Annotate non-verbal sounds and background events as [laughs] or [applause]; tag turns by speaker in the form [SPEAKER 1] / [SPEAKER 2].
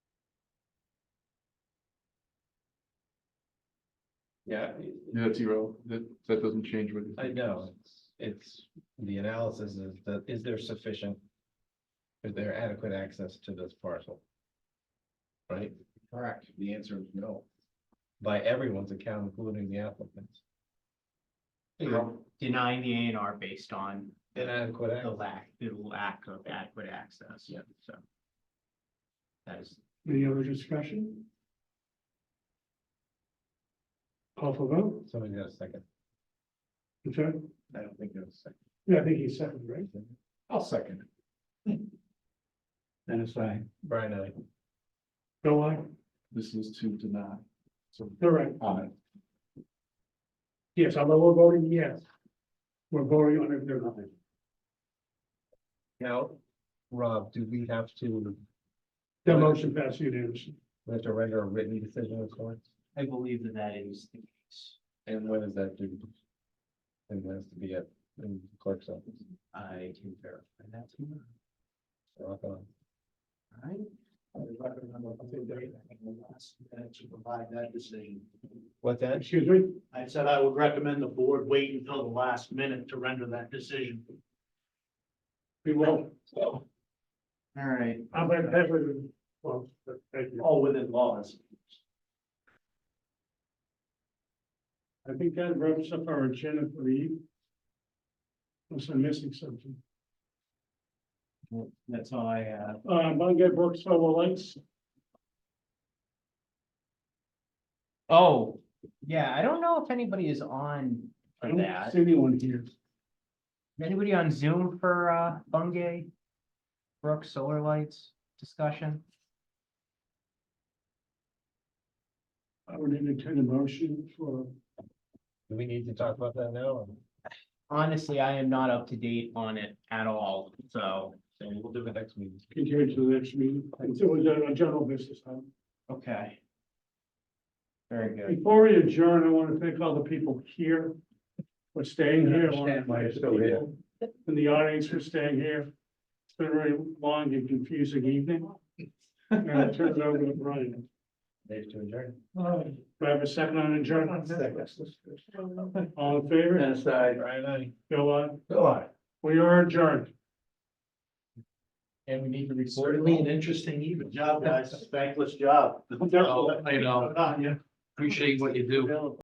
[SPEAKER 1] Yeah,
[SPEAKER 2] Yeah, that's zero, that, that doesn't change with.
[SPEAKER 1] I know, it's, it's, the analysis is that, is there sufficient? Is there adequate access to this parcel? Right? Correct. The answer is no. By everyone's account, including the applicants.
[SPEAKER 3] denying the A and R based on the
[SPEAKER 1] Inadequate
[SPEAKER 3] the
[SPEAKER 1] access.
[SPEAKER 3] lack, the lack of adequate access. Yeah. So. That is,
[SPEAKER 4] Any other discussion? Call for vote,
[SPEAKER 1] Somebody got a second?
[SPEAKER 4] I'm sorry,
[SPEAKER 1] I don't think there's a second.
[SPEAKER 4] yeah, I think he's second, right?
[SPEAKER 1] I'll second.
[SPEAKER 4] Dennis, I.
[SPEAKER 1] Brian, I.
[SPEAKER 4] Bill, I,
[SPEAKER 2] This is to deny. So,
[SPEAKER 4] correct,
[SPEAKER 2] aye.
[SPEAKER 4] yes, although we're voting yes. We're voting on it, they're not.
[SPEAKER 1] Now, Rob, do we have to,
[SPEAKER 4] The motion passed unanimously.
[SPEAKER 1] we have to render a written decision of sorts?
[SPEAKER 3] I believe that that is the case.
[SPEAKER 1] And when is that due? And when has to be at, in clerk's office?
[SPEAKER 3] I can verify that. tomorrow.
[SPEAKER 1] Rock on.
[SPEAKER 3] All right. I would recommend on the third day, I think, the last, uh, To provide that decision.
[SPEAKER 1] What's that?
[SPEAKER 4] Excuse me,
[SPEAKER 3] I said I would recommend the board wait until the last minute to render that decision.
[SPEAKER 4] we will,
[SPEAKER 3] All right.
[SPEAKER 4] I'm gonna have it, well, thank you.
[SPEAKER 3] All within laws.
[SPEAKER 4] I think that wraps up our agenda for the evening. Unless I'm missing something.
[SPEAKER 3] That's all I have.
[SPEAKER 4] Uh, Bungay Brook Solar Lights,
[SPEAKER 3] Oh, yeah, I don't know if anybody is on
[SPEAKER 4] I
[SPEAKER 3] for
[SPEAKER 4] don't
[SPEAKER 3] that.
[SPEAKER 4] see anyone here.
[SPEAKER 3] Is Anybody on Zoom for uh Bungay? Brook Solar Lights discussion?
[SPEAKER 4] I would entertain a motion for,
[SPEAKER 1] Do we need to talk about that now?
[SPEAKER 3] Honestly, I am not up to date on it at all, so,
[SPEAKER 1] So we'll do it next meeting.
[SPEAKER 4] continue to the next meeting, until we go to general business. time.
[SPEAKER 3] okay. Very good.
[SPEAKER 4] Before we adjourn, I want to thank all the people here for staying here. I wanna
[SPEAKER 1] Understand why you're
[SPEAKER 4] thank the
[SPEAKER 1] still here.
[SPEAKER 4] people In the audience for staying here. It's been a very long and confusing evening. And I'll turn it over to Brian.
[SPEAKER 1] Dave to adjourn.
[SPEAKER 4] Do I have a second on adjournment? All in favor?
[SPEAKER 1] Aside. Right, I.
[SPEAKER 4] Bill, aye.
[SPEAKER 1] Go on.
[SPEAKER 4] we are adjourned.
[SPEAKER 1] And we need to record.
[SPEAKER 3] Certainly an interesting evening.
[SPEAKER 2] [laughs]
[SPEAKER 3] Good job, guys. Thankless job.
[SPEAKER 4] Definitely.
[SPEAKER 2] I know.
[SPEAKER 3] Good on you.
[SPEAKER 2] Appreciate what you do.